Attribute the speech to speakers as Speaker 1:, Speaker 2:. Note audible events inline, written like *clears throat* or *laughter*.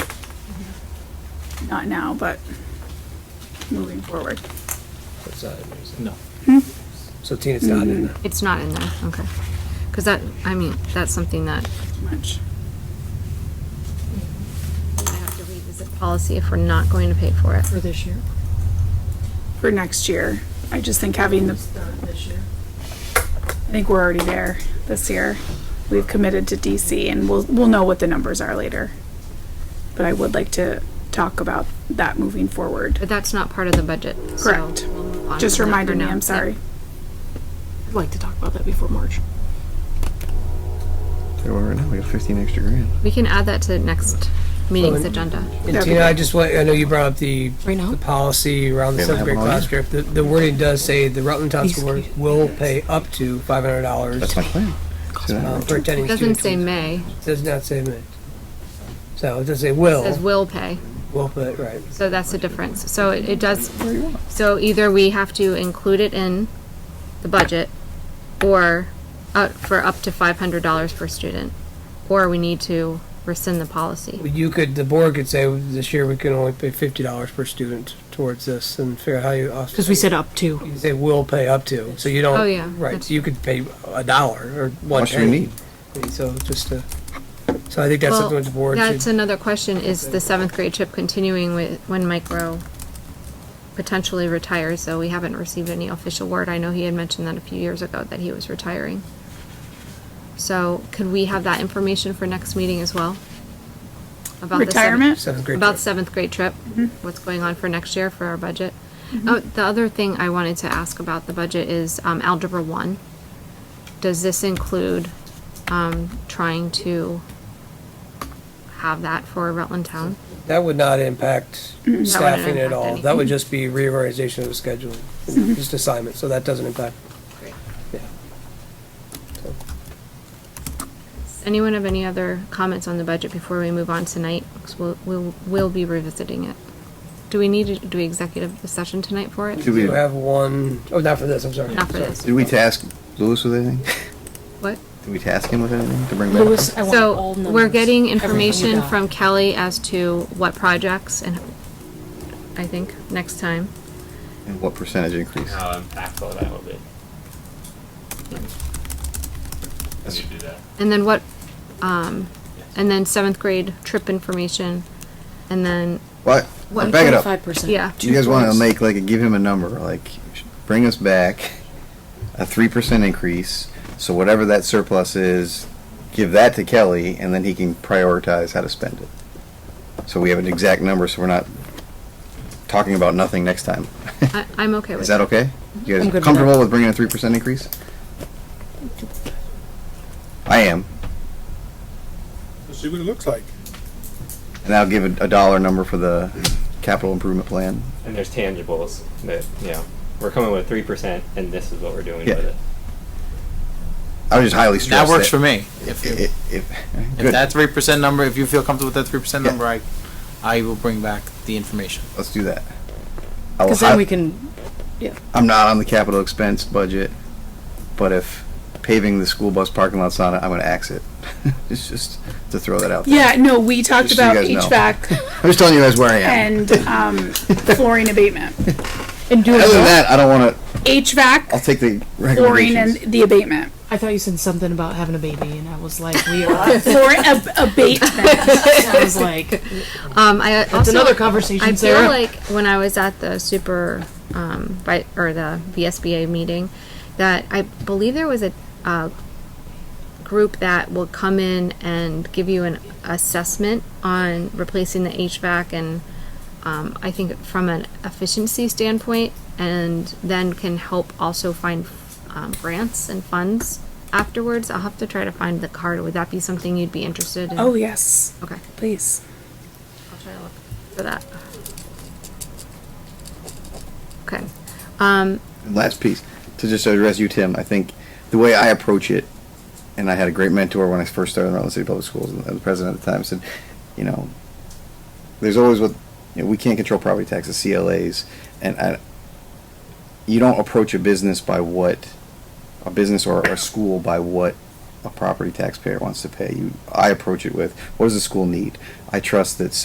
Speaker 1: not now, but moving forward.
Speaker 2: It's not in there, is it?
Speaker 3: No.
Speaker 2: So Tina's not in there.
Speaker 4: It's not in there, okay. Because that, I mean, that's something that
Speaker 1: Much.
Speaker 4: I have to revisit policy if we're not going to pay for it.
Speaker 5: for this year.
Speaker 1: for next year. I just think having the,
Speaker 5: Start this year.
Speaker 1: I think we're already there this year. We've committed to DC and we'll, we'll know what the numbers are later. But I would like to talk about that moving forward.
Speaker 4: But that's not part of the budget, so.
Speaker 1: Correct.
Speaker 4: we'll move on
Speaker 1: Just
Speaker 4: from that for
Speaker 1: reminded me,
Speaker 4: now.
Speaker 1: I'm sorry.
Speaker 5: I'd like to talk about that before March.
Speaker 6: There we are right now. We got 15 extra grand.
Speaker 4: Yeah. We can add that to next meeting's
Speaker 2: Well,
Speaker 4: agenda.
Speaker 2: And
Speaker 1: That'd be
Speaker 2: Tina, I
Speaker 1: good.
Speaker 2: just want, I know you brought up the,
Speaker 5: Right now?
Speaker 2: the policy around the
Speaker 6: Yeah,
Speaker 2: seventh
Speaker 6: we have
Speaker 2: grade
Speaker 6: it on
Speaker 2: class trip. The, the wording does say the Rutland Town School Board
Speaker 5: Excuse
Speaker 2: will pay up to five hundred dollars
Speaker 6: That's my plan. See what
Speaker 2: um,
Speaker 6: happens.
Speaker 2: for attending
Speaker 4: It doesn't
Speaker 2: students.
Speaker 4: say may,
Speaker 2: Does not say may. So it does say
Speaker 4: it
Speaker 2: will,
Speaker 4: says will pay,
Speaker 2: will put, right.
Speaker 4: so that's the difference. So it it does, so either we have to include it in the budget or uh, for up to five hundred dollars per student, or we need to rescind the policy.
Speaker 2: You could, the board could say this year we can only pay fifty dollars per student towards this and figure out how you. offset
Speaker 5: Because we
Speaker 2: it.
Speaker 5: said up to.
Speaker 2: You say will pay up to, so you don't.
Speaker 4: Oh, yeah,
Speaker 2: Right,
Speaker 4: that's-
Speaker 2: so you could pay a dollar or one
Speaker 6: What you
Speaker 2: penny.
Speaker 6: need.
Speaker 2: So just to, so I think that's
Speaker 4: Well,
Speaker 2: something that the board
Speaker 4: That's
Speaker 2: should,
Speaker 4: another question, is the seventh grade trip continuing with, when Mike Rowe potentially retires, though we haven't received any official word, I know he had mentioned that a few years ago, that he was retiring. So could we have that information for next meeting as well? About the seventh-
Speaker 1: Retirement?
Speaker 2: seventh grade.
Speaker 4: About
Speaker 2: trip. Mm-hmm.
Speaker 4: seventh grade trip, what's going on for next year for our budget. Oh, the other thing I wanted to ask about the budget is, um, Algebra One. Does this include, um, trying to have that for Rutland Town?
Speaker 2: That would not
Speaker 4: *clears throat*
Speaker 2: impact staffing at
Speaker 4: impact
Speaker 2: all.
Speaker 4: anything. Mm-hmm.
Speaker 2: That would just be reorganization of the schedule, just assignment, so that doesn't impact.
Speaker 4: Anyone have any other comments on the budget before we move on tonight? 'Cause we'll, we'll, we'll be revisiting it. Do we need to do executive session tonight for it?
Speaker 6: Did
Speaker 2: We
Speaker 6: we,
Speaker 2: have one, oh, not for this, I'm sorry.
Speaker 4: Not for
Speaker 2: Sorry.
Speaker 4: this.
Speaker 6: did we task Lewis with anything?
Speaker 4: What?
Speaker 6: Did we task him with anything to bring back?
Speaker 5: Lewis, I want
Speaker 4: So,
Speaker 5: all numbers.
Speaker 4: we're getting
Speaker 5: Everything we
Speaker 4: information
Speaker 5: got.
Speaker 4: from Kelly as to what projects and, I think, next time.
Speaker 6: And what percentage increase?
Speaker 3: How impactful that will be. When you do that.
Speaker 4: And then what, um, and then seventh grade trip information, and then,
Speaker 6: What?
Speaker 4: What-
Speaker 6: Back it up.
Speaker 5: Five percent.
Speaker 4: yeah.
Speaker 6: You guys want to make like, give him a number, like, bring us back a three percent increase. So whatever that surplus is, give that to Kelly and then he can prioritize how to spend it. So we have an exact number, so we're not talking about nothing next time.
Speaker 4: I, I'm okay with
Speaker 6: Is
Speaker 4: that.
Speaker 6: that okay? You
Speaker 5: I'm good
Speaker 6: guys
Speaker 5: with
Speaker 6: comfortable
Speaker 5: that.
Speaker 6: with bringing a three percent increase? I am,
Speaker 7: See what it looks like.
Speaker 6: and I'll give a, a dollar number for the capital improvement plan.
Speaker 3: And there's tangibles that, you know, we're coming with three percent and this is what we're doing
Speaker 6: Yeah.
Speaker 3: with it.
Speaker 6: I was just highly stressed.
Speaker 8: That works for me. If, you-
Speaker 6: If, if,
Speaker 8: if
Speaker 6: good,
Speaker 8: that three percent number, if you feel comfortable with that three percent
Speaker 6: Yeah.
Speaker 8: number, I, I will bring back the information.
Speaker 6: let's do that. I will
Speaker 5: Because then
Speaker 6: hi-
Speaker 5: we can,
Speaker 6: I'm not on the capital expense budget, but if paving the school bus parking lot's on it, I'm gonna ax it. *laughs* It's just to throw that out there.
Speaker 1: Yeah, no, we talked
Speaker 6: Just so you
Speaker 1: about
Speaker 6: guys know. *laughs*
Speaker 1: HVAC
Speaker 6: I'm just telling you guys where I am.
Speaker 1: and, um, flooring abatement.
Speaker 5: and do
Speaker 6: Other than
Speaker 5: it.
Speaker 6: that, I don't wanna, I'll
Speaker 1: HVAC,
Speaker 6: take the
Speaker 1: flooring and
Speaker 6: recommendations.
Speaker 1: the abatement.
Speaker 5: I thought you said something about having a baby and I was like, we are.
Speaker 1: Flooring ab- abatement.
Speaker 6: *laughs*
Speaker 5: I was like,
Speaker 4: Um, I
Speaker 5: that's
Speaker 4: also-
Speaker 5: another
Speaker 4: I
Speaker 5: conversation,
Speaker 4: feel
Speaker 5: Sarah.
Speaker 4: like when I was at the super, um, by, or the VSBA meeting, that I believe there was a, uh, group that will come in and give you an assessment on replacing the HVAC and, um, I think from an efficiency standpoint, and then can help also find, um, grants and funds afterwards. I'll have to try to find the card. Would that be something you'd be interested in?
Speaker 1: Oh, yes,
Speaker 4: Okay,
Speaker 1: please.
Speaker 4: I'll try to look for that. Okay, um,
Speaker 6: And Last piece, to just address you, Tim, I think the way I approach it, and I had a great mentor when I first started in Rutland City Public Schools, and the president at the time said, you know, there's always what, you know, we can't control property taxes, CLAs, and I, you don't approach a business by what, a business or a school by what a property taxpayer wants to pay. You, I approach it with, what does the school need? I trust that